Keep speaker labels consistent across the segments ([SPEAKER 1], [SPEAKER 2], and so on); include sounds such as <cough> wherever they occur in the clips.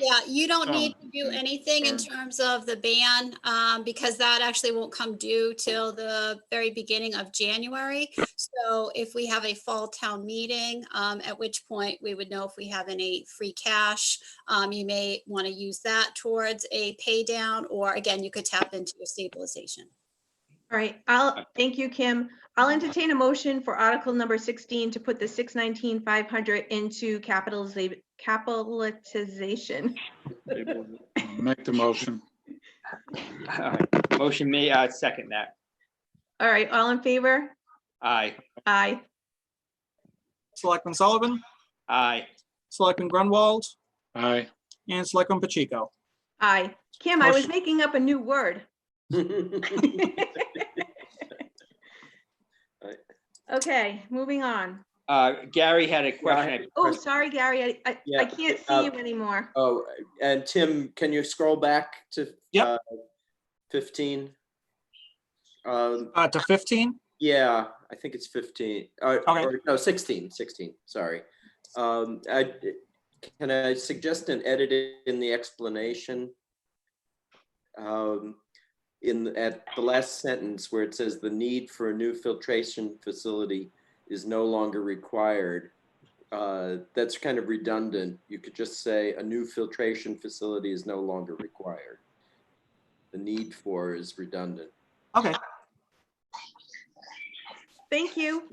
[SPEAKER 1] Yeah, you don't
[SPEAKER 2] Um,
[SPEAKER 1] need to do anything in terms of the ban, um, because that actually won't come due till the very beginning of January. So if we have a fall town meeting, um, at which point we would know if we have any free cash. Um, you may want to use that towards a pay down, or again, you could tap into your stabilization.
[SPEAKER 3] All right, I'll, thank you, Kim. I'll entertain a motion for article number sixteen to put the six nineteen five hundred into capitaliza- capitalization.
[SPEAKER 2] Make the motion.
[SPEAKER 4] All right. Motion made, I second that.
[SPEAKER 3] All right, all in favor?
[SPEAKER 4] Aye,
[SPEAKER 3] Aye.
[SPEAKER 5] Selectman Sullivan,
[SPEAKER 4] aye.
[SPEAKER 5] Selectman Grunwald,
[SPEAKER 2] Aye.
[SPEAKER 5] and Selectman Pacheco.
[SPEAKER 3] Aye. Kim, I was
[SPEAKER 5] Motion-
[SPEAKER 3] making up a new word. <laughs> Okay, moving on.
[SPEAKER 4] Uh, Gary had a question.
[SPEAKER 3] Oh, sorry, Gary, I- I, I
[SPEAKER 6] Yeah,
[SPEAKER 3] can't
[SPEAKER 6] uh,
[SPEAKER 3] see you anymore.
[SPEAKER 6] Oh, and Tim, can you scroll back to?
[SPEAKER 5] Yep.
[SPEAKER 6] uh, Fifteen? Um,
[SPEAKER 5] Uh, to 15,
[SPEAKER 6] yeah, I think it's fifteen, uh,
[SPEAKER 5] Okay.
[SPEAKER 6] or, no, sixteen, sixteen, sorry. Um, I, can I suggest an edit in the explanation? Um, in, at the last sentence where it says the need for a new filtration facility is no longer required. Uh, that's kind of redundant. You could just say a new filtration facility is no longer required. The need for is redundant.
[SPEAKER 5] okay.
[SPEAKER 3] Thank you.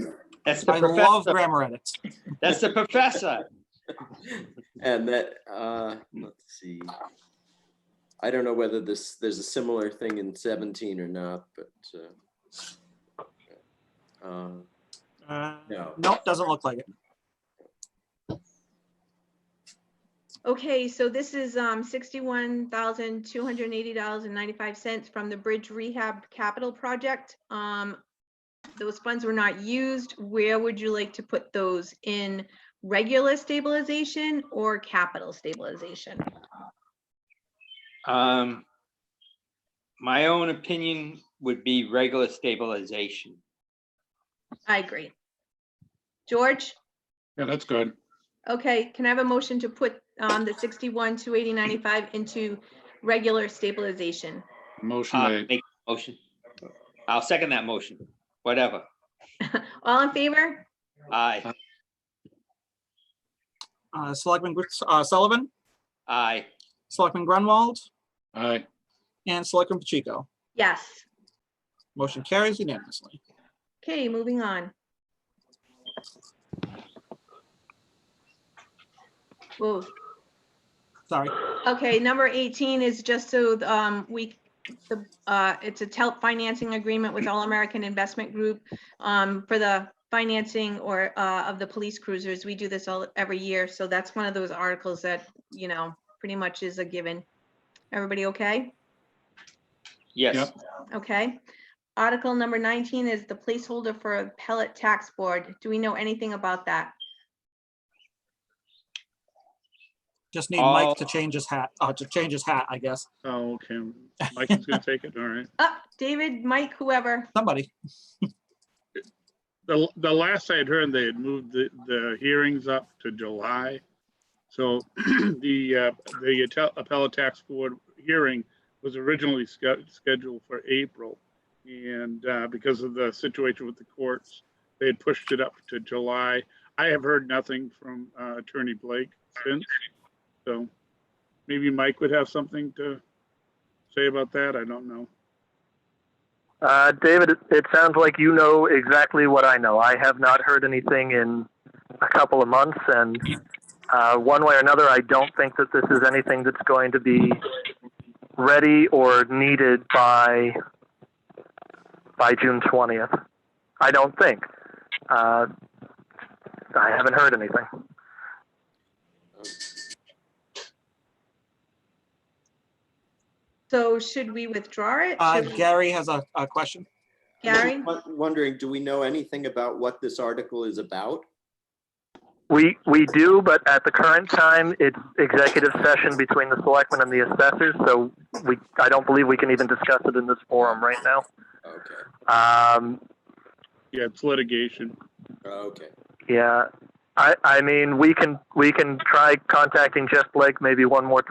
[SPEAKER 4] That's the
[SPEAKER 5] I love
[SPEAKER 4] professor.
[SPEAKER 5] grammar edits.
[SPEAKER 4] That's the professor.
[SPEAKER 6] And that, uh, let's see. I don't know whether this, there's a similar thing in seventeen or not, but, uh, um,
[SPEAKER 5] Uh,
[SPEAKER 6] no.
[SPEAKER 5] Nope, doesn't look like it.
[SPEAKER 3] Okay, so this is um sixty-one thousand two hundred and eighty dollars and ninety-five cents from the Bridge Rehab Capital Project. Um, those funds were not used. Where would you like to put those in regular stabilization or capital stabilization?
[SPEAKER 4] Um, my own opinion would be regular stabilization.
[SPEAKER 3] I agree. George,
[SPEAKER 2] Yeah, that's good.
[SPEAKER 3] okay, can I have a motion to put um the sixty-one, two eighty, ninety-five into regular stabilization? <laughs>
[SPEAKER 2] Motion
[SPEAKER 4] Uh,
[SPEAKER 2] made.
[SPEAKER 4] make a motion. I'll second that motion, whatever.
[SPEAKER 3] All in favor?
[SPEAKER 4] Aye,
[SPEAKER 5] Uh, Selectman Gr- uh, Sullivan,
[SPEAKER 4] aye.
[SPEAKER 5] Selectman Grunwald,
[SPEAKER 2] Aye.
[SPEAKER 5] and Selectman Pacheco.
[SPEAKER 3] Yes.
[SPEAKER 5] Motion carries unanimously.
[SPEAKER 3] Okay, moving on. Whoa,
[SPEAKER 5] Sorry.
[SPEAKER 3] okay, number 18 is just so um, we, the, uh, it's a TELP financing agreement with All American Investment Group um, for the financing or uh, of the police cruisers. We do this all, every year, so that's one of those articles that, you know, pretty much is a given. Everybody okay?
[SPEAKER 4] Yes,
[SPEAKER 2] Yep.
[SPEAKER 3] Okay. Article number 19 is the placeholder for a pellet tax board. Do we know anything about that?
[SPEAKER 5] Just need Mike to
[SPEAKER 4] Oh.
[SPEAKER 5] change his hat, uh, to change his hat, I guess.
[SPEAKER 2] Oh, okay. Mike's gonna take it. All right.
[SPEAKER 3] Up, David, Mike, whoever.
[SPEAKER 5] Somebody.
[SPEAKER 7] The, the last I'd heard, they had moved the, the hearings up to July. So <clears throat> the, uh, the Atel- appellate tax board hearing was originally sched- scheduled for April. And uh, because of the situation with the courts, they had pushed it up to July. I have heard nothing from uh, Attorney Blake since. So maybe Mike would have something to say about that. I don't know.
[SPEAKER 8] Uh, David, it- it sounds like you know exactly what I know. I have not heard anything in a couple of months, and uh, one way or another, I don't think that this is anything that's going to be ready or needed by by June twentieth. I don't think. Uh, I haven't heard anything.
[SPEAKER 3] So should we withdraw it?
[SPEAKER 5] Uh,
[SPEAKER 3] Should we-
[SPEAKER 5] Gary has a, a question.
[SPEAKER 6] I'm just
[SPEAKER 3] Gary?
[SPEAKER 6] won- Wondering, do we know anything about what this article is about?
[SPEAKER 8] We we do, but at the current time, it's executive session between the selectmen and the assessors, so we I don't believe we can even discuss it in this forum right now.
[SPEAKER 6] Okay,
[SPEAKER 8] Um,
[SPEAKER 7] Yeah, it's litigation.
[SPEAKER 6] okay.
[SPEAKER 8] yeah, I I mean we can we can try contacting Jeff Blake maybe one more